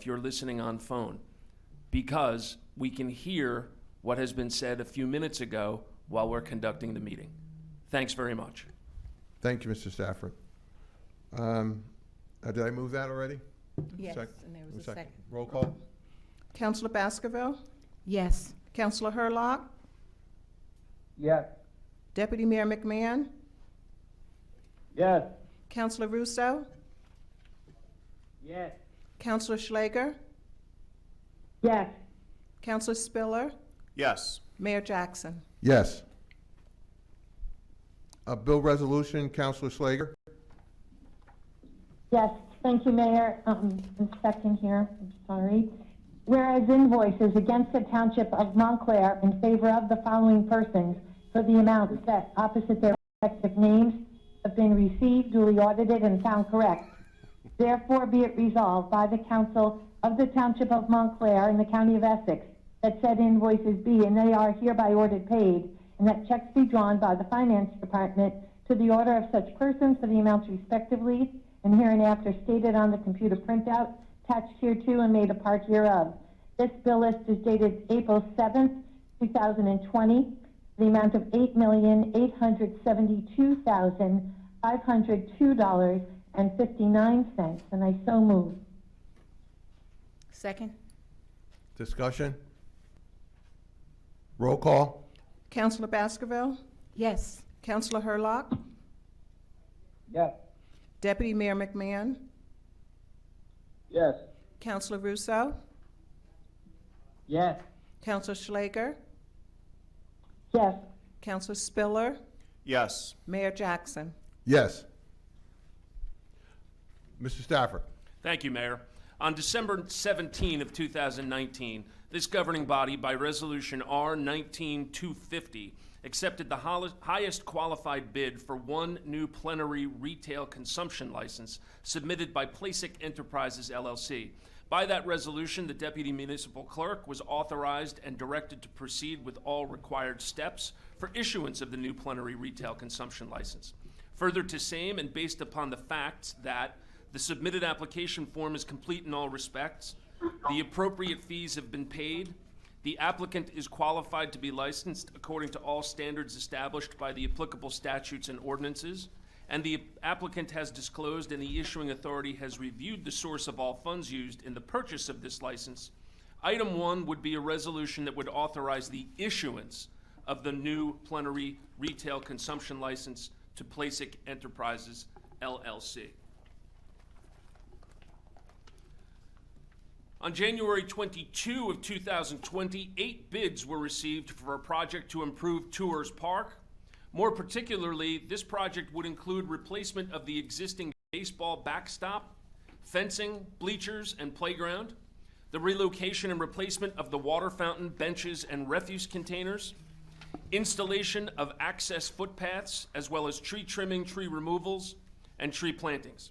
if you're listening on phone, because we can hear what has been said a few minutes ago while we're conducting the meeting. Thanks very much. Thank you, Mr. Stafford. Um, uh, Did I move that already? Yes, Sec- and there was a second. Roll call? Counselor Baskerville? Yes. Counselor Hurlock? Yes. Deputy Mayor McMahon? Yes. Counselor Russo? Yes. Counselor Schlager? Yes. Counselor Spiller? Yes. Mayor Jackson? Yes. A bill resolution, Counselor Slager? Yes, thank you, Mayor. Um, a second here, I'm sorry. Whereas invoices against the Township of Montclair in favor of the following persons for the amounts set opposite their respective names have been received, duly audited, and found correct. Therefore be it resolved by the Council of the Township of Montclair in the County of Essex that said invoices be and they are hereby ordered paid, and that checks be drawn by the Finance Department to the order of such persons for the amounts respectively and hereinafter stated on the computer printout attached hereto and made a part hereof. This bill list is dated April 7th, 2020, the amount of $8,872,502.59, and I so move. Second? Discussion? Roll call? Counselor Baskerville? Yes. Counselor Hurlock? Yes. Deputy Mayor McMahon? Yes. Counselor Russo? Yes. Counselor Schlager? Yes, Counselor Spiller? Yes. Mayor Jackson? Yes. Mr. Stafford? Thank you, Mayor. On December 17 of 2019, this governing body, by Resolution R-19-250, accepted the hol- highest qualified bid for one new plenary retail consumption license submitted by Placic Enterprises LLC. By that resolution, the deputy municipal clerk was authorized and directed to proceed with all required steps for issuance of the new plenary retail consumption license. Further to same, and based upon the facts that the submitted application form is complete in all respects, the appropriate fees have been paid, the applicant is qualified to be licensed according to all standards established by the applicable statutes and ordinances, and the applicant has disclosed and the issuing authority has reviewed the source of all funds used in the purchase of this license, Item one would be a resolution that would authorize the issuance of the new plenary retail consumption license to Placic Enterprises LLC. On January 22 of 2020, eight bids were received for a project to improve Tours Park. More particularly, this project would include replacement of the existing baseball backstop, fencing, bleachers, and playground, the relocation and replacement of the water fountain, benches, and refuse containers, installation of access footpaths, as well as tree trimming, tree removals, and tree plantings.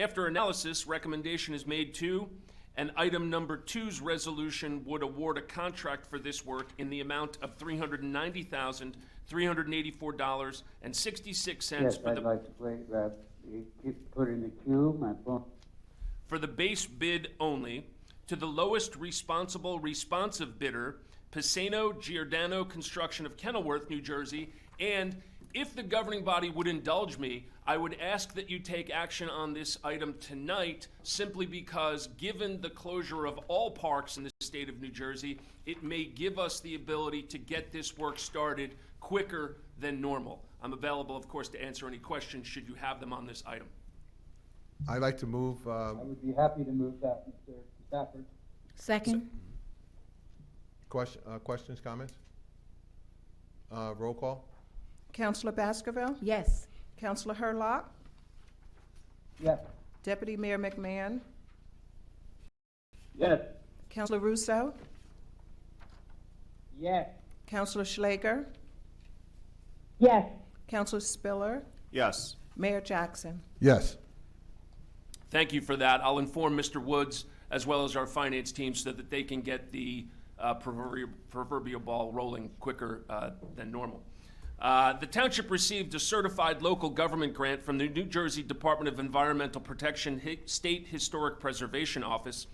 After analysis, recommendation is made to, and item number two's resolution would award a contract for this work in the amount of three hundred and ninety thousand, three hundred and eighty-four dollars and sixty-six cents Yes, for I'd the, like to play that. You keep putting the queue, my phone. for the base bid only, to the lowest responsible responsive bidder, Pisano Giordano Construction of Kenilworth, New Jersey, and if the governing body would indulge me, I would ask that you take action on this item tonight, simply because, given the closure of all parks in the state of New Jersey, it may give us the ability to get this work started quicker than normal. I'm available, of course, to answer any questions, should you have them on this item. I'd like to move, uh, I would be happy to move that, Mr. Stafford. Second? question- uh, questions, comments? Uh, Roll call? Counselor Baskerville? Yes. Counselor Hurlock? Yes. Deputy Mayor McMahon? Yes. Counselor Russo? Yes. Counselor Schlager? yes, Counselor Spiller? Yes. Mayor Jackson? Yes. Thank you for that. I'll inform Mr. Woods as well as our finance team so that they can get the uh, proverbial proverbial ball rolling quicker uh, than normal. Uh, The township received a certified local government grant from the New Jersey Department of Environmental Protection Hi- State Historic Preservation Office